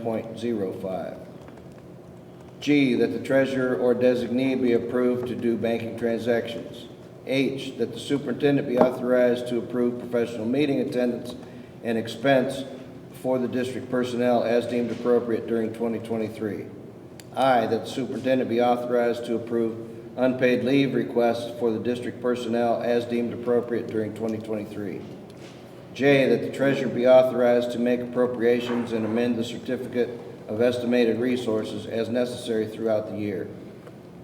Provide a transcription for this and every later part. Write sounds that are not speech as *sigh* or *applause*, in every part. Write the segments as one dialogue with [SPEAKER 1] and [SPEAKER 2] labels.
[SPEAKER 1] point zero five. G, that the treasurer or designee be approved to do banking transactions. H, that the superintendent be authorized to approve professional meeting attendance and expense for the district personnel as deemed appropriate during 2023. I, that the superintendent be authorized to approve unpaid leave requests for the district personnel as deemed appropriate during 2023. J, that the treasurer be authorized to make appropriations and amend the certificate of estimated resources as necessary throughout the year.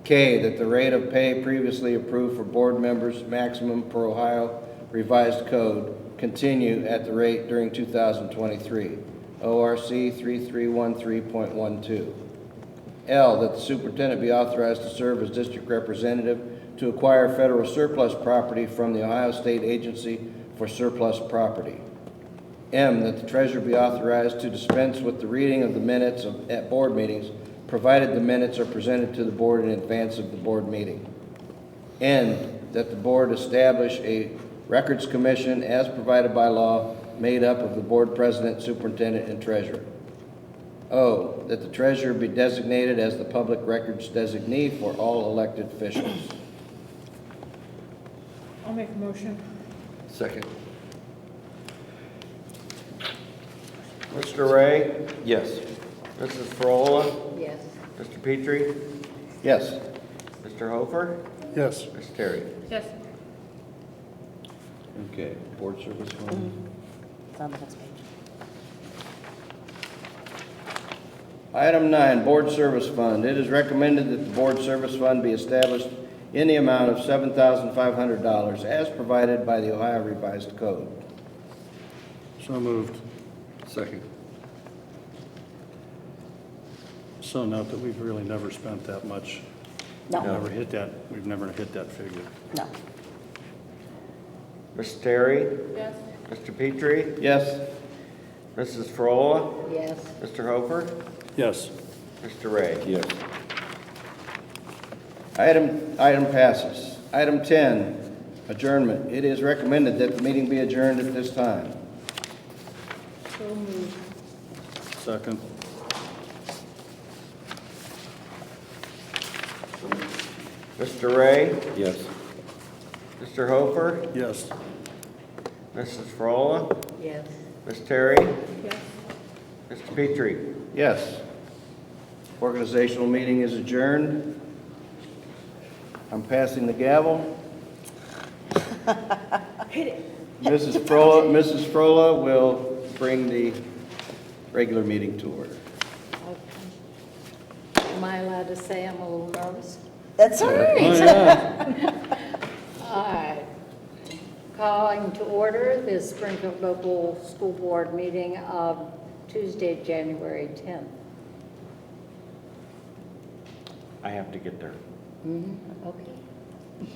[SPEAKER 1] K, that the rate of pay previously approved for board members maximum per Ohio revised code continue at the rate during 2023, ORC 3313.12. L, that the superintendent be authorized to serve as district representative to acquire federal surplus property from the Ohio State Agency for Surplus Property. M, that the treasurer be authorized to dispense with the reading of the minutes of- at board meetings, provided the minutes are presented to the board in advance of the board meeting. N, that the board establish a records commission as provided by law, made up of the board president, superintendent, and treasurer. O, Oh, that the treasurer be designated as the public records designee for all elected officials.
[SPEAKER 2] I'll make a motion.
[SPEAKER 3] Second.
[SPEAKER 4] Mr. Ray,
[SPEAKER 3] Yes.
[SPEAKER 4] Mrs. Frola,
[SPEAKER 5] Yes.
[SPEAKER 4] Mr. Petrie,
[SPEAKER 1] Yes.
[SPEAKER 4] Mr. Hofer,
[SPEAKER 6] yes,
[SPEAKER 4] Ms. Terry.
[SPEAKER 2] Yes.
[SPEAKER 1] Okay, board service one.
[SPEAKER 5] It's on the next page.
[SPEAKER 1] Item nine, board service fund. It is recommended that the board service fund be established in the amount of seven thousand five hundred dollars as provided by the Ohio Revised Code.
[SPEAKER 6] so moved.
[SPEAKER 3] Second.
[SPEAKER 6] So note that we've really never spent that much.
[SPEAKER 5] No,
[SPEAKER 6] Never hit that, we've never hit that figure.
[SPEAKER 5] no.
[SPEAKER 4] Ms. Terry,
[SPEAKER 2] Yes.
[SPEAKER 4] Mr. Petrie,
[SPEAKER 1] Yes?
[SPEAKER 4] Mrs. Frola,
[SPEAKER 5] Yes.
[SPEAKER 4] Mr. Hofer,
[SPEAKER 6] Yes,
[SPEAKER 4] Mr. Ray.
[SPEAKER 3] Yes.
[SPEAKER 1] Item, item passes. Item ten, adjournment. It is recommended that the meeting be adjourned at this time.
[SPEAKER 2] So moved.
[SPEAKER 6] second.
[SPEAKER 4] Mr. Ray,
[SPEAKER 3] Yes.
[SPEAKER 4] Mr. Hofer,
[SPEAKER 6] Yes,
[SPEAKER 4] Mrs. Frola,
[SPEAKER 5] Yes.
[SPEAKER 4] Ms. Terry,
[SPEAKER 2] Yes.
[SPEAKER 4] Mr. Petrie.
[SPEAKER 1] Yes. Organizational meeting is adjourned. I'm passing the gavel. Mrs. Frola, Mrs. Frola will bring the regular meeting to order.
[SPEAKER 5] Am I allowed to say I'm a little nervous? That's all right. *laughs* All right. Calling to order this Springfield Local School Board meeting of Tuesday, January 10th.
[SPEAKER 4] I have to get there.
[SPEAKER 5] Okay.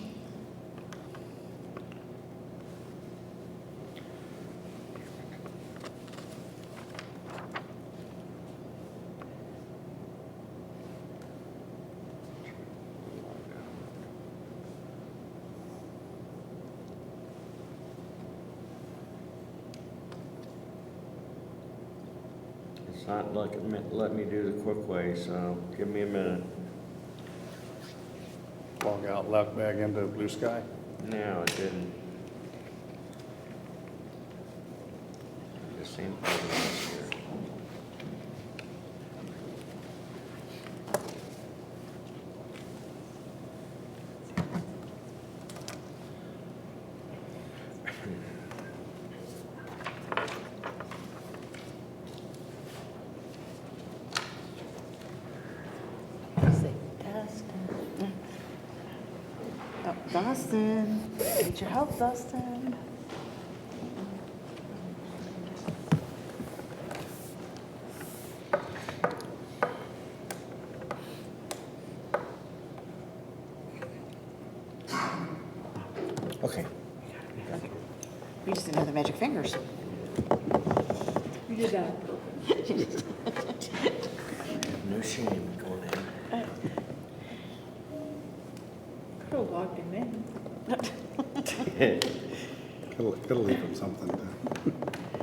[SPEAKER 4] It's not letting me, let me do the quick way, so give me a minute.
[SPEAKER 6] log out, left back into blue sky.
[SPEAKER 4] No, it didn't. The same thing last year.
[SPEAKER 5] Say, Dustin. Oh, Dustin, need your help, Dustin.
[SPEAKER 4] Okay.
[SPEAKER 7] We just didn't have the magic fingers.
[SPEAKER 2] You did that.
[SPEAKER 4] No shame going in.
[SPEAKER 2] Could have logged him in.
[SPEAKER 4] *laughs*
[SPEAKER 6] It'll, it'll leave them something to.